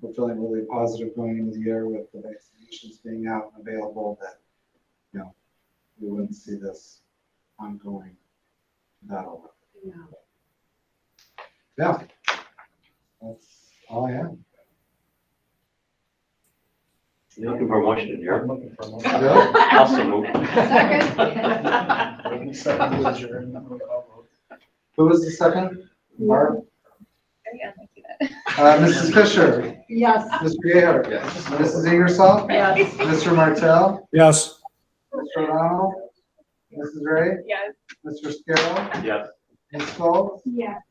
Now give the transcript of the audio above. we're feeling really positive going into the year with the vaccinations being out and available that, you know, we wouldn't see this ongoing battle. Yeah. Yeah. That's all I have. You Looking for a motion to adjourn? looking for one. Yeah. Also move. Second. Waiting second to adjourn. I'll vote. Who was the second? Barb? Yeah, thank you. Uh, Mrs. Fisher? Yes. Mr. Gayheart? Yes. Mrs. Ingersoll? Yes. Mr. Martell? Yes. Mr. O'Donnell? Mrs. Ray? Yes. Mr. Scarrow? Yes. Ms. Schultz? Yes.